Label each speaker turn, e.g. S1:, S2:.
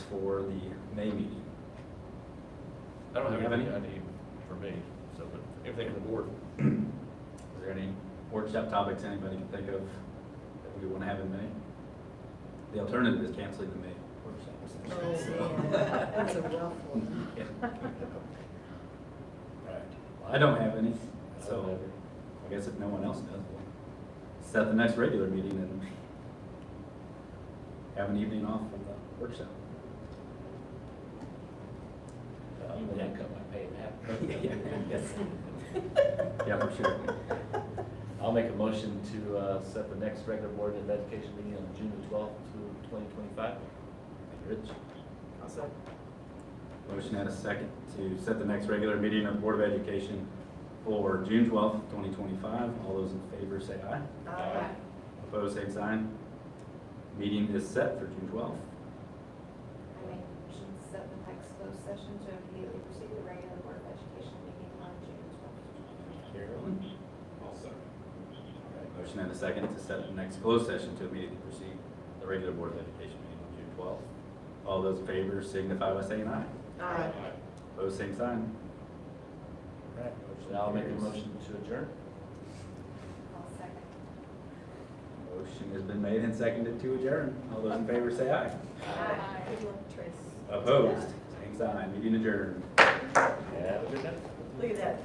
S1: for the May meeting?
S2: I don't
S1: You
S2: have
S1: have
S2: anything I
S1: any?
S2: need for me, so, but anything on the board.
S1: Is there any workshop topics anybody can think of that we want to have in May? The alternative is canceling the May workshop.
S3: That's a rough one.
S1: Yeah. Well, I don't have any, so I guess if no one else does, we'll set the next regular meeting and have an evening off from the workshop.
S4: You would have cut my pay in
S1: Yeah,
S4: half.
S1: yeah, yes. Yeah, for sure.
S4: I'll make a motion to uh, set the next regular Board of Education meeting on June the twelfth to twenty twenty-five.
S1: Rich?
S3: Also,
S1: Motion and a second to set the next regular meeting of the Board of Education for June twelfth, twenty twenty-five. All those in favor say aye.
S3: uh,
S1: Opposed, same sign. Meeting is set for June twelfth.
S5: I make a motion to set the next closed session to immediately proceed to the regular Board of Education meeting on June twelfth.
S1: Carolyn? All right, Motion and a second to set the next closed session to immediately proceed the regular Board of Education meeting on June twelfth. All those in favor signify by saying aye.
S3: aye.
S1: Opposed, same sign. All right, motion
S4: And I'll make a
S1: carries.
S4: motion to adjourn.
S5: I'll second.
S1: Motion has been made and seconded to adjourn. All those in favor say aye.
S3: Aye. Good luck, Trace.
S1: Opposed, same sign, meeting adjourned.
S4: Have a good night.
S3: Look at that.